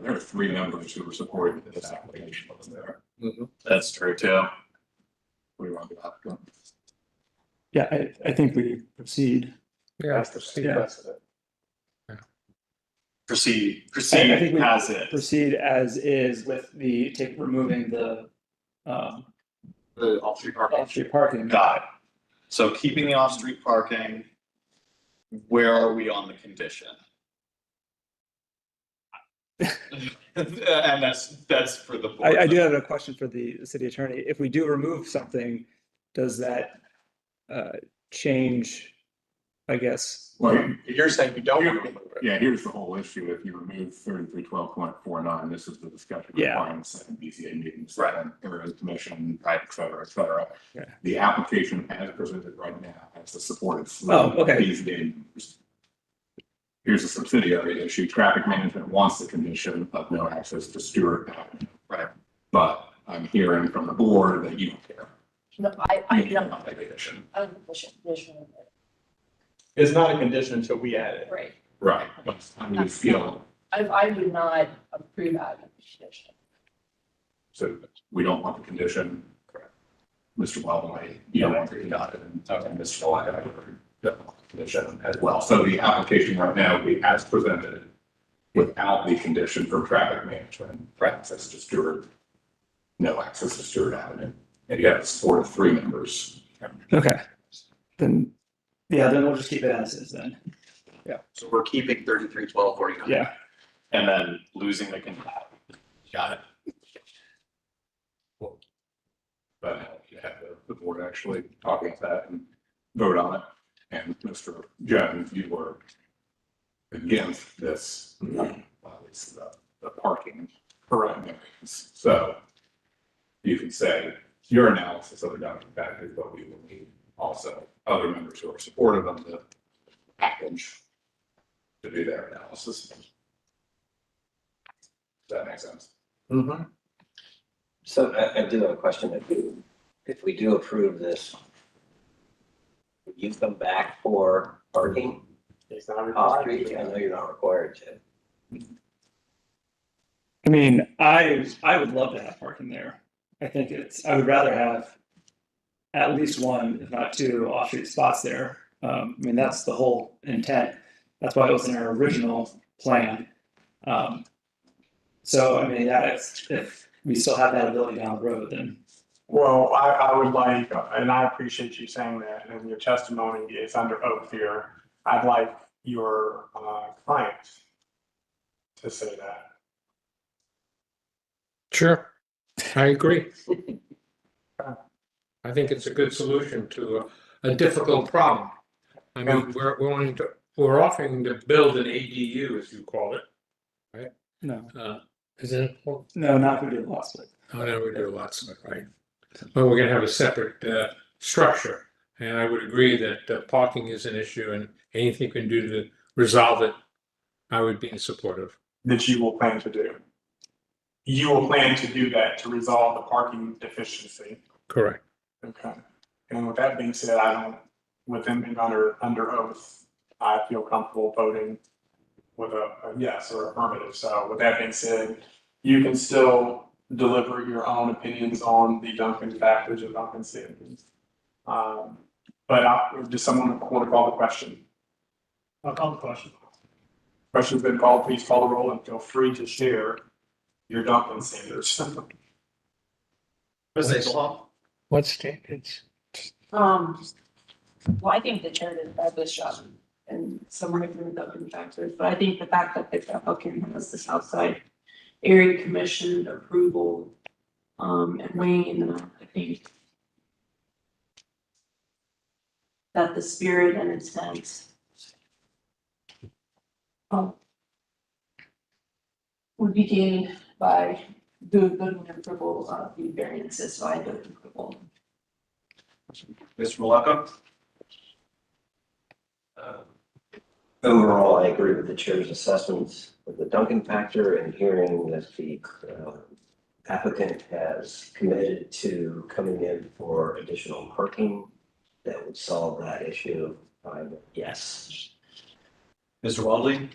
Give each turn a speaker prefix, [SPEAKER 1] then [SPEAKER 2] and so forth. [SPEAKER 1] There were three members who were supporting this application, wasn't there?
[SPEAKER 2] Mhm.
[SPEAKER 1] That's true too. What do you want to do?
[SPEAKER 3] Yeah, I, I think we proceed.
[SPEAKER 2] Yeah.
[SPEAKER 3] Yeah.
[SPEAKER 1] Proceed,
[SPEAKER 3] I- I think
[SPEAKER 1] proceed
[SPEAKER 3] we-
[SPEAKER 1] as it.
[SPEAKER 3] Proceed as is with the, take, removing the, um,
[SPEAKER 2] The off-street parking.
[SPEAKER 3] off-street parking.
[SPEAKER 1] Got it. So keeping the off-street parking, where are we on the condition? And that's, that's for the. board.
[SPEAKER 3] I, I do have a question for the city attorney. If we do remove something, does that, uh, change, I guess?
[SPEAKER 4] Well,
[SPEAKER 2] You're saying you don't want to remove it.
[SPEAKER 4] yeah, here's the whole issue. If you remove thirty-three twelve point four nine, this is the discussion
[SPEAKER 3] Yeah.
[SPEAKER 4] requirements in BCA meetings.
[SPEAKER 1] Right.
[SPEAKER 4] and Areas commission, right, et cetera, et cetera.
[SPEAKER 3] Yeah.
[SPEAKER 4] The application as presented right now has the support of. three
[SPEAKER 3] Oh, okay.
[SPEAKER 4] These names. Here's a subsidiary issue. Traffic management wants the condition of no access to Stewart Avenue.
[SPEAKER 1] Right.
[SPEAKER 4] But I'm hearing from the board that you don't care.
[SPEAKER 5] No, I, I
[SPEAKER 4] You don't
[SPEAKER 5] don't,
[SPEAKER 4] want that condition.
[SPEAKER 5] I don't push it, push it,
[SPEAKER 2] It's not a condition until we add it.
[SPEAKER 5] right.
[SPEAKER 4] Right. But I mean, you feel,
[SPEAKER 5] I, I do not approve that condition.
[SPEAKER 4] so we don't want the condition.
[SPEAKER 1] Correct.
[SPEAKER 4] Mr. Wellboy, you don't want the condition.
[SPEAKER 1] Okay.
[SPEAKER 4] And Mr. Wellboy, I don't want the condition as well. So the application right now, we as presented without the condition for traffic management.
[SPEAKER 1] Right.
[SPEAKER 4] Access to Stewart. No access to Stewart Avenue. And you have four to three members.
[SPEAKER 3] Okay, then, yeah, then we'll just keep it as is then.
[SPEAKER 2] So we're keeping thirty-three twelve forty-nine.
[SPEAKER 3] Yeah,
[SPEAKER 1] And then losing the condition. Got it.
[SPEAKER 4] But you have the- the board actually talk about that and vote on it. And Mr. Jones, you were against this, uh, at least the, the parking parameters. So you can say your analysis of the document factors, but we will need also other members who are supportive of the package to do their analysis. Does that make sense?
[SPEAKER 2] Mm-hmm.
[SPEAKER 6] So I, I do have a question. If we, if we do approve this, would you come back for parking
[SPEAKER 2] It's not
[SPEAKER 6] off street? I know you're not required to.
[SPEAKER 3] I mean, I, I would love to have parking there. I think it's, I would rather have at least one, if not two, off-street spots there. Um, I mean, that's the whole intent. That's why it was in our original plan. Um, so I mean, yeah, it's, if we still have that ability down the road, then,
[SPEAKER 7] Well, I, I would like, and I appreciate you saying that, and your testimony is under oath here. I'd like your uh, client to say that.
[SPEAKER 2] Sure, I agree. I think it's a good solution to a a difficult problem. I mean, we're, we're wanting to, we're offering to build an ADU, as you call it.
[SPEAKER 3] no,
[SPEAKER 2] Uh, Isn't, it? oh,
[SPEAKER 3] no, not if we do the lot split.
[SPEAKER 2] no, we do lots of it, right? Well, we're gonna have a separate, uh, structure. And I would agree that uh, parking is an issue and anything we can do to resolve it, I would be supportive.
[SPEAKER 7] that you will plan to do. You will plan to do that to resolve the parking deficiency.
[SPEAKER 2] Correct.
[SPEAKER 7] Okay. And with that being said, I don't, with them being under, under oath, I feel comfortable voting with a, a yes or affirmative. So with that being said, you can still deliver your own opinions on the Duncan factors or Duncan standards. Um, but I, does someone want to call the question? I'll call the question. Question's been called, please call the roll and feel free to share your Duncan standards.
[SPEAKER 2] What's What standards?
[SPEAKER 5] Um, well, I think the chair did a fabulous job and somewhere between the open factors, but I think the fact that the applicant has this outside area commission approval, um, and weighing in, on it, I think that the spirit and intent um, would be gained by the, the approval of the variances, by the approval.
[SPEAKER 1] Mr. Malacca?
[SPEAKER 6] Overall, I agree with the chair's assessments of the Duncan factor and hearing that the um, applicant has committed to coming in for additional parking that would solve that issue. I'm a yes.
[SPEAKER 1] Mr. Waldley?